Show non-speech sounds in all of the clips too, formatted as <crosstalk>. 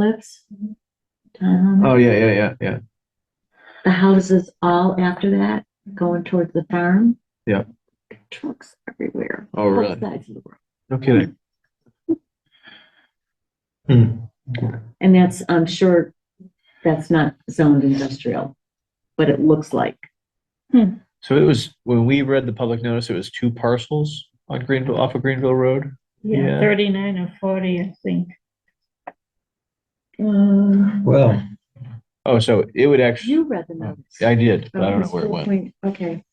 lives. Um, Oh, yeah, yeah, yeah, yeah. the houses all after that going towards the farm. Yeah. Trucks everywhere. Oh, both really? sides of the road. No kidding. Hmm. And that's, I'm sure, that's not zoned industrial, but it looks like. So it was, when we read the public notice, it was two parcels on Greenville, off of Greenville Road? Yeah. Yeah, thirty-nine or forty, I think. Um, Well, Oh, so it would actually, You read the notice. I did, but I don't know where it went. Okay,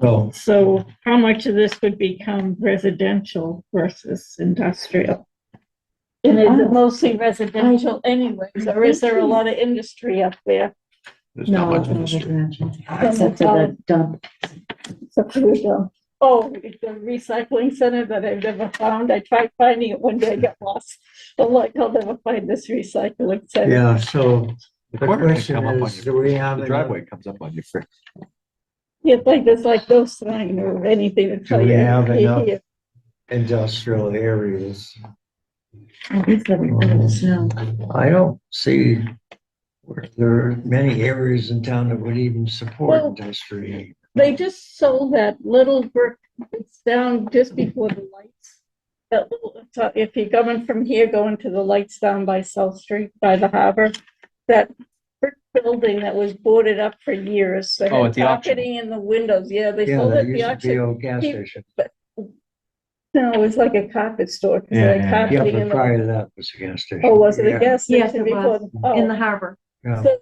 well, so how much of this would become residential versus industrial? And is it mostly residential anyways, or is there a lot of industry up there? There's not no, much it's of not a street. residential. Except for the dump. Except for the- Oh, the recycling center that I've never found. I tried finding it one day, I got lost. I'm like, I'll never find this recycling center. <laughs> yeah, so The the corner can question come up on is, your- do we have The enough, driveway comes up on your, fr- You'd think there's like no sign or anything to tell we you. <laughs> have you're enough? here. industrial areas? I think that we put it snow. I don't see where there are many areas in town that would even support Well- industrial. They just sold that little brick, it's down just before the lights. That little, so if you're coming from here, going to the lights down by South Street, by the harbor, that brick building that was boarded up for years. They Oh, had at the auction. Carpeting in the windows, yeah, they Yeah, sold there it at the used to be auction. old gas Keep- station. No, it was like a carpet store, 'cause they Yeah, yeah, had yeah. Yeah, carpeting in but the, prior to that was a gas station. oh, was it a gas Yes, station it was. before? In the Oh, harbor. Yeah, so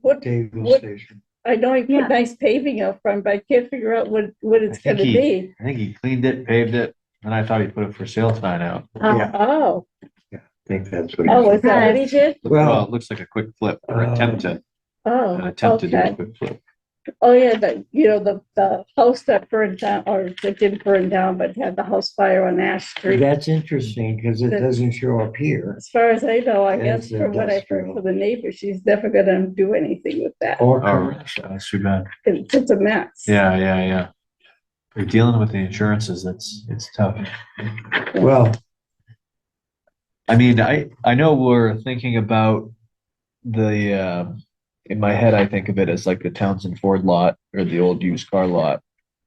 what, Dayville what- Station. I know he Yeah. put nice paving up front, but I can't figure out what, what it's think gonna he- be. I think he cleaned it, paved it, and I thought he put a for sale sign out. Uh, Yeah. Oh, I think that's what. oh, is it is. that what he did? Well, Well, it looks like a quick flip or Uh, attempt to, an Oh, attempt to do a okay. quick flip. Oh, yeah, the, you know, the, the house that burned down, or that didn't burn down, but had the house fire on Ash Street. that's interesting because it The- doesn't show up here As far as I know, I guess It's from what I heard industrial. from the neighbor, she's never gonna do anything with that. or. Oh, really? that's too bad. It's just a mess. Yeah, yeah, yeah. You're dealing with the insurances, that's, it's tough. Well, I mean, I, I know we're thinking about the, um in my head, I think of it as like the Townsend Ford lot or the old used car lot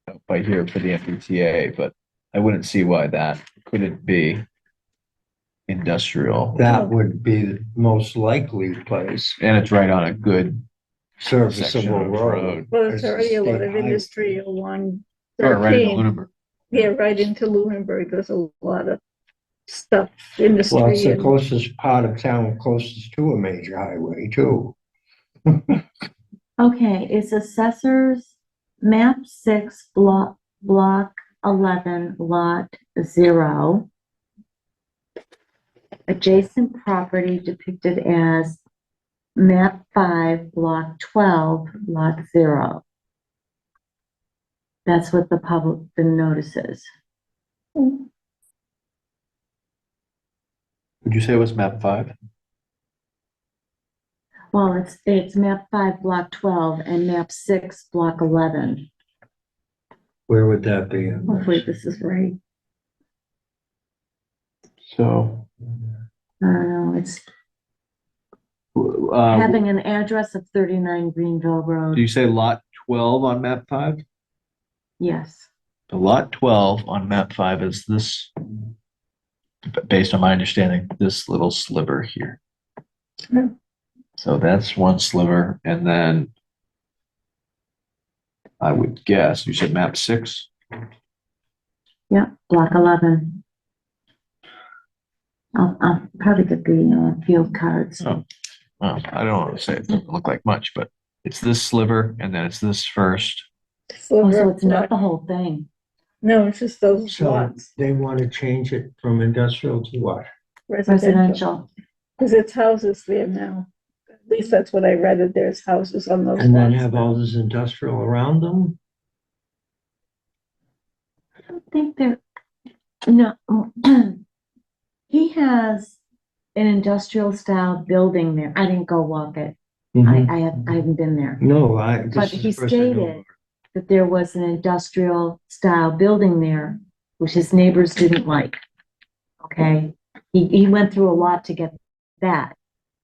out by here for the MBTA, but I wouldn't see why that couldn't be industrial. that would be the most likely place. And it's right on a good, Section serviceable of road. road. Well, there's There's a already a lot state of highway. industry along or right in thirteen. Lunenburg. Yeah, right into Lunenburg, there's a lot of stuff, Well, it's industry. the and- closest part of town, closest to a major highway too. Okay, it's assessors, map six, block, block eleven, lot zero. Adjacent property depicted as map five, block twelve, lot zero. That's what the public, the notice is. Would you say it was map five? Well, it's, it's map five, block twelve, and map six, block eleven. Where would that be? Hopefully this is right. So. I don't know, it's Uh, having an address of thirty-nine Greenville Road. do you say lot twelve on map five? Yes, The lot twelve on map five is this, based on my understanding, this little sliver here. Hmm. So that's one sliver, and then I would guess, you said map six? yeah, block eleven. I'll, I'll probably get the, uh, field cards. Oh, well, I don't want to say it doesn't look like much, but it's this sliver, and then it's this first. Oh, Silver So it's not block. the whole thing. No, it's just those So lots, they want to change it from industrial to what? residential. Residential, Because it's houses there now. At least that's what I read, that there's houses on those And then lots. have all this industrial around them? I don't think there, no. <clears throat> He has an industrial style building there. I didn't go walk it. I, I have, I haven't been there. No, I. this But is he the first I know. stated that there was an industrial style building there, which his neighbors didn't like. Okay, he, he went through a lot to get that.